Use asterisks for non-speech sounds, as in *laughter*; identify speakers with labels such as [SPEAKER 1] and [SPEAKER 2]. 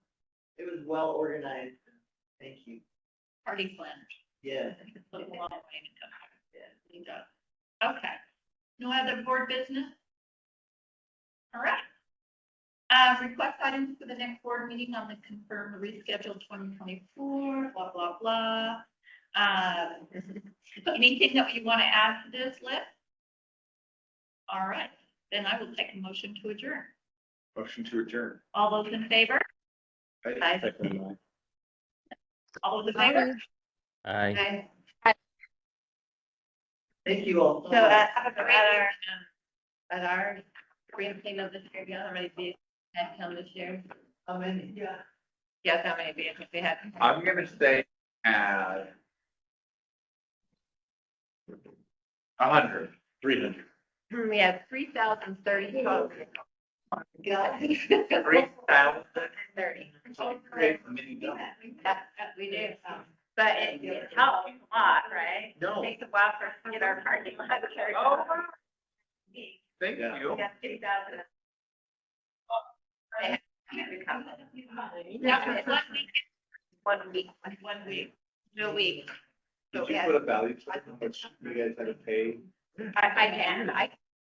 [SPEAKER 1] well organized. Thank you.
[SPEAKER 2] party planners.
[SPEAKER 1] Yeah.
[SPEAKER 2] Put a long way to go. You got it. Okay, no other board business? All right. Uh, request items for the next board meeting on the confirmed rescheduled twenty twenty-four, blah, blah, blah. Um anything that you want to add to this list? All right, then I will take a motion to adjourn.
[SPEAKER 3] Motion to adjourn.
[SPEAKER 2] All those in favor? Aye. All those in favor?
[SPEAKER 4] Aye.
[SPEAKER 2] Okay.
[SPEAKER 1] Thank you all.
[SPEAKER 2] So uh, have a great year. At our ranking of this year, we already did head count this year.
[SPEAKER 1] How many? Yeah.
[SPEAKER 2] Yes, how many vehicles we had?
[SPEAKER 3] I'm gonna say, uh. A hundred. Three hundred.
[SPEAKER 2] *clears throat* We had three thousand thirty folks.
[SPEAKER 1] God.
[SPEAKER 3] Three
[SPEAKER 2] *laughs*
[SPEAKER 3] thousand.
[SPEAKER 2] Thirty.
[SPEAKER 3] Create a mini dump.
[SPEAKER 2] That's what we do. um, But it, it helps a lot, right?
[SPEAKER 3] No,
[SPEAKER 2] Takes a while for us to get our parking lot. cleared.
[SPEAKER 3] Oh. thank
[SPEAKER 4] Yeah.
[SPEAKER 3] you.
[SPEAKER 2] We got three thousand. That was one week. One week. One week. No week. So
[SPEAKER 3] Did
[SPEAKER 2] we
[SPEAKER 3] you
[SPEAKER 2] had-
[SPEAKER 3] put a value to how much you guys had to pay?
[SPEAKER 2] I, I can, I